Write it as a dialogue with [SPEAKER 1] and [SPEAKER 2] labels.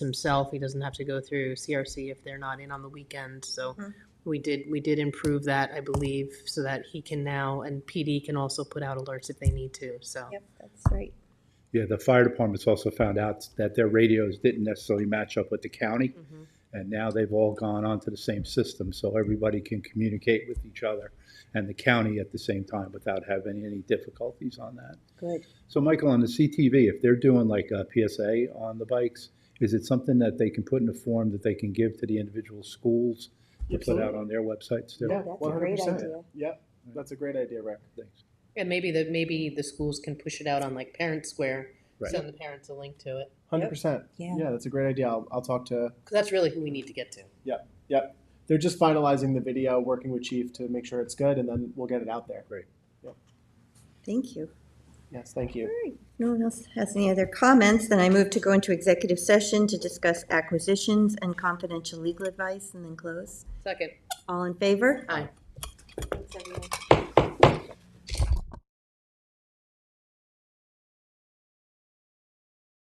[SPEAKER 1] himself. He doesn't have to go through CRC if they're not in on the weekend. So we did, we did improve that, I believe, so that he can now, and PD can also put out alerts if they need to, so.
[SPEAKER 2] Yep, that's right.
[SPEAKER 3] Yeah, the fire departments also found out that their radios didn't necessarily match up with the county.
[SPEAKER 1] Mhm.
[SPEAKER 3] And now they've all gone onto the same system, so everybody can communicate with each other and the county at the same time without having any difficulties on that.
[SPEAKER 2] Good.
[SPEAKER 3] So Michael, on the CTV, if they're doing like a PSA on the bikes, is it something that they can put in a form that they can give to the individual schools to put out on their websites too?
[SPEAKER 4] Yeah,
[SPEAKER 2] That's a great
[SPEAKER 4] 100%.
[SPEAKER 2] idea.
[SPEAKER 4] Yep, that's a great idea, Rick.
[SPEAKER 3] Thanks.
[SPEAKER 1] And maybe the, maybe the schools can push it out on like Parent Square,
[SPEAKER 3] Right.
[SPEAKER 1] send the parents a link to it.
[SPEAKER 4] 100%.
[SPEAKER 2] Yeah.
[SPEAKER 4] Yeah, that's a great idea. I'll, I'll talk to,
[SPEAKER 1] Because that's really who we need to get to.
[SPEAKER 4] yep. They're just finalizing the video, working with Chief to make sure it's good, and then we'll get it out there.
[SPEAKER 2] Thank you.
[SPEAKER 4] Yes, thank
[SPEAKER 2] All
[SPEAKER 4] you.
[SPEAKER 2] right. If No one else has any other comments, then I move to go into executive session to discuss acquisitions and confidential legal advice and then close.
[SPEAKER 1] Second.
[SPEAKER 2] All in favor?
[SPEAKER 1] Aye.